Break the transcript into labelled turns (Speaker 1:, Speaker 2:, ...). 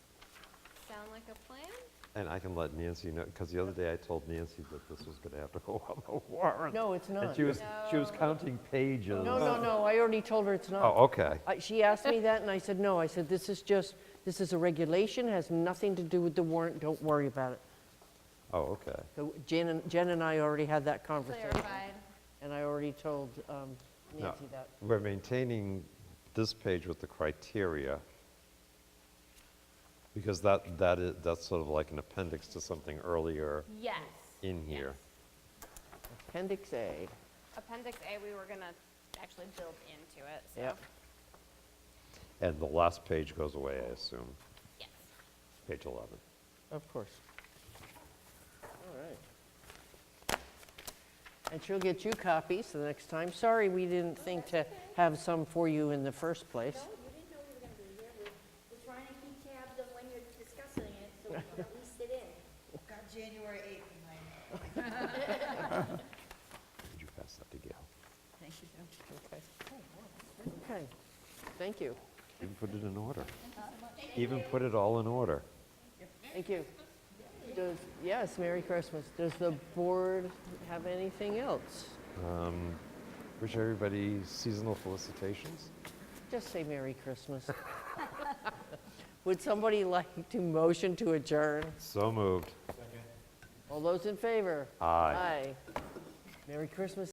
Speaker 1: Sound like a plan?
Speaker 2: And I can let Nancy know, because the other day I told Nancy that this was going to have to go on the warrant.
Speaker 3: No, it's
Speaker 2: And
Speaker 3: not.
Speaker 2: she
Speaker 3: No,
Speaker 2: was, she was counting pages.
Speaker 3: no, no, I already told her it's
Speaker 2: Oh,
Speaker 3: not.
Speaker 2: okay.
Speaker 3: I- She asked me that, and I said, no, I said, this is just, this is a regulation, has nothing to do with the warrant, don't worry about it.
Speaker 2: Oh, okay.
Speaker 3: So Jen and, Jen and I already had that conversation,
Speaker 1: Clarified.
Speaker 3: and I already told um,
Speaker 2: No.
Speaker 3: Nancy that.
Speaker 2: We're maintaining this page with the criteria, because that, that is, that's sort of like an appendix to something earlier
Speaker 1: Yes.
Speaker 2: in here.
Speaker 3: Appendix A,
Speaker 1: Appendix A, we were gonna actually build into it, so.
Speaker 3: yep.
Speaker 2: And the last page goes away, I assume,
Speaker 1: Yes.
Speaker 2: page 11.
Speaker 3: Of course. All right. And she'll get you copies the next time. Sorry, we didn't think to have some for you in the first place.
Speaker 4: No, you didn't know you were gonna be here. We're, we're trying to keep tabs on when you're discussing it, so we can at least sit in.
Speaker 5: Got January 8th in my
Speaker 2: Could you pass that to Gail?
Speaker 3: Okay, thank you,
Speaker 2: You can put it in order. Even put it all in order.
Speaker 3: thank you. Does, yes, Merry Christmas. Does the board have anything else?
Speaker 2: Wish everybody seasonal felicitations.
Speaker 3: Just say Merry Christmas. Would somebody like to motion to adjourn?
Speaker 2: So moved.
Speaker 3: All those in favor?
Speaker 2: Aye.
Speaker 3: Aye. Merry Christmas,